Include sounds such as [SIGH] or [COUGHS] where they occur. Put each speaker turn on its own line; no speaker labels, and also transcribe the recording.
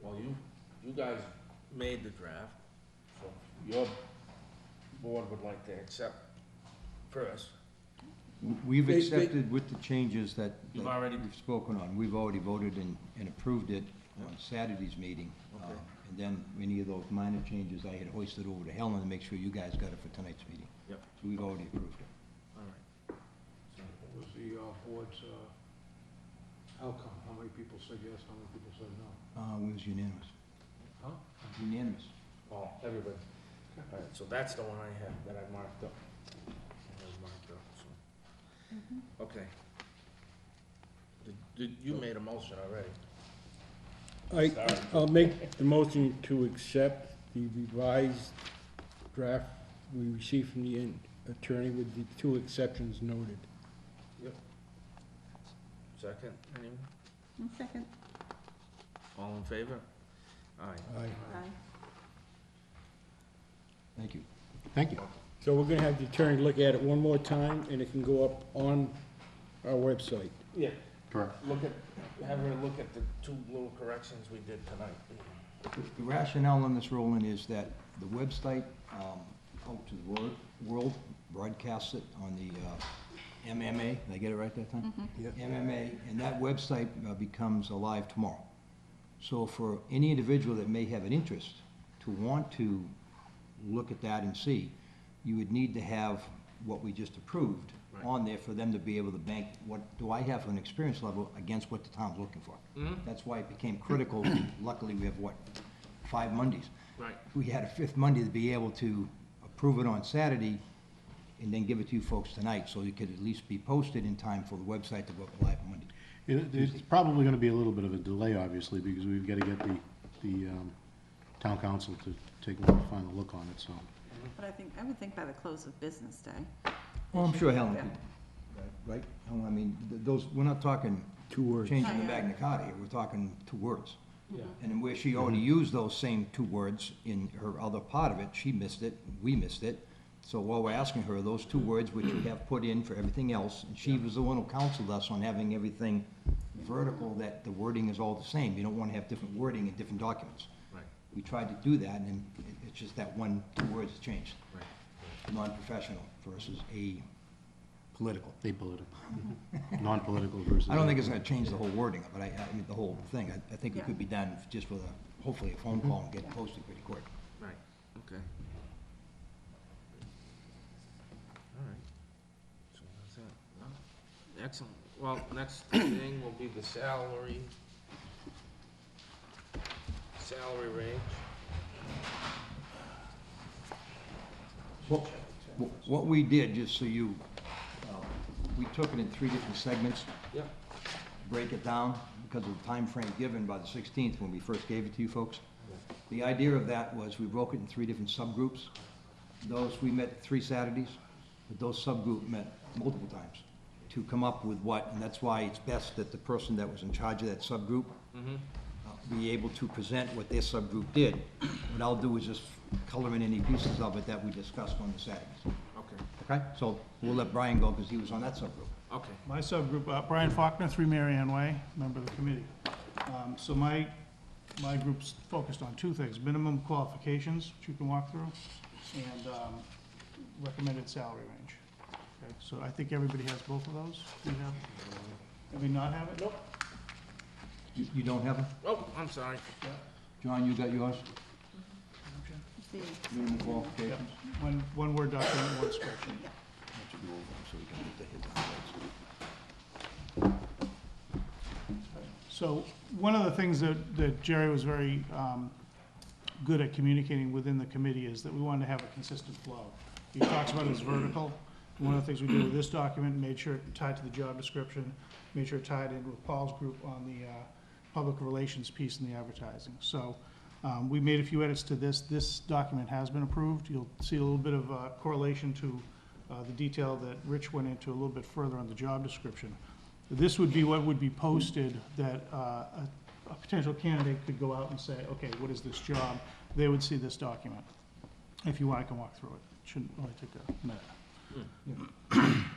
uh, guys made the draft, so your board would like to accept first.
We've
They- they-
accepted with the changes that.
You've
that
already-
We've spoken on, we've already voted and, and approved it on Saturday's meeting. Uh,
Okay.
And then any of those minor changes, I had hoisted over to Helen to make sure you guys got it for tonight's meeting.
Yep.
So we've already approved it.
All right.
What was the uh, board's uh, outcome? How many people said yes, how many people said no?
Uh, it was unanimous.
Huh?
Unanimous.
Oh, everybody. All right, so that's the one I have, that I marked up. I have marked up, so. Okay. Did- Did, you made a motion already.
I,
Sorry.
I'll make the motion to accept the revised draft we received from the in- attorney with the two exceptions noted.
Second, anyone?
One second.
All in favor? Aye.
Aye.
Aye.
Thank you.
Thank you.
So we're gonna have the attorney look at it one more time, and it can go up on our website.
Yeah,
Correct.
look at, have her look at the two little corrections we did tonight.
The rationale on this, Roland, is that the website, um, out to the wor- world, broadcasts it on the, uh, MMA, did I get it right that time?
Yep.
MMA, and that website uh, becomes alive tomorrow. So for any individual that may have an interest to want to look at that and see, you would need to have what we just approved
Right.
on there for them to be able to bank, what do I have for an experience level against what the town's looking for?
Mm-hmm.
That's why it became critical,
[COUGHS]
luckily we have what, five Mondays?
Right.
We had a fifth Monday to be able to approve it on Saturday and then give it to you folks tonight, so it could at least be posted in time for the website to go up live Monday.
It- It's probably going to be a little bit of a delay, obviously, because we've got to get the, the um, town council to take a final look on it, so.
But I think, I would think by the close of business day.
Well, I'm sure Helen
Yeah.
could, right? Helen, I mean, th- those, we're not talking
Two words.
changing the
Yeah.
Magna Carta, here, we're talking two words.
Yeah.
And then where she already used those same two words in her other part of it, she missed it, we missed it. So while we're asking her, those two words which we have put in for everything else, and she was the one who counseled us on having everything vertical, that the wording is all the same, you don't wanna have different wording in different documents.
Right,
We tried to do that, and then it- it's just that one, two words has changed,
right.
non-professional versus a political.
Apolitical. [LAUGHS] Non-political versus.
I don't think it's gonna change the whole wording, but I, I mean, the whole thing, I, I think it
Yeah. Mm-hmm.
could be done just with a, hopefully a phone call and get
Yeah.
posted pretty quick.
Right, okay. All right. So that's it. No? Excellent. Well, [CLEARS THROAT] next thing will be the salary. Salary range.
Well, wh- What we did, just so you, uh, we took it in three different segments,
Yep.
break it down because of the time frame given by the 16th when we first gave it to you folks. The idea of that was we broke it in three different subgroups. Those, we met three Saturdays, but those subgroup met multiple times to come up with what, and that's why it's best that the person that was in charge of that subgroup uh, be able to present what their subgroup did. What I'll do is just color in any pieces of it that we discussed on the Saturdays,
Okay,
okay? So we'll let Brian go because he was on that subgroup.
okay.
My subgroup, uh, Brian Faulkner, Three Mary Ann Way, member of the committee. Um, So my, my group's focused on two things, minimum qualifications, which you can walk through, and um, recommended salary range. Okay, So I think everybody has both of those. Do we have, do we not have it? Nope.
You you don't have it?
Oh, I'm sorry.
John, you got yours?
See,
Minimum qualifications?
One, one word document, one spreadsheet.
That should go over so we can get the headlines.
So, one of the things that, that Jerry was very, um, good at communicating within the committee is that we wanted to have a consistent flow. He talks about his vertical, one of the things we did with this document, made sure it tied to the job description, made sure it tied in with Paul's group on the, uh, public relations piece and the advertising. So, um, we made a few edits to this, this document has been approved, you'll see a little bit of, uh, correlation to, uh, the detail that Rich went into a little bit further on the job description. This would be what would be posted that uh, a a potential candidate could go out and say, okay, what is this job? They would see this document. If you want, I can walk through it. Shouldn't really take a minute.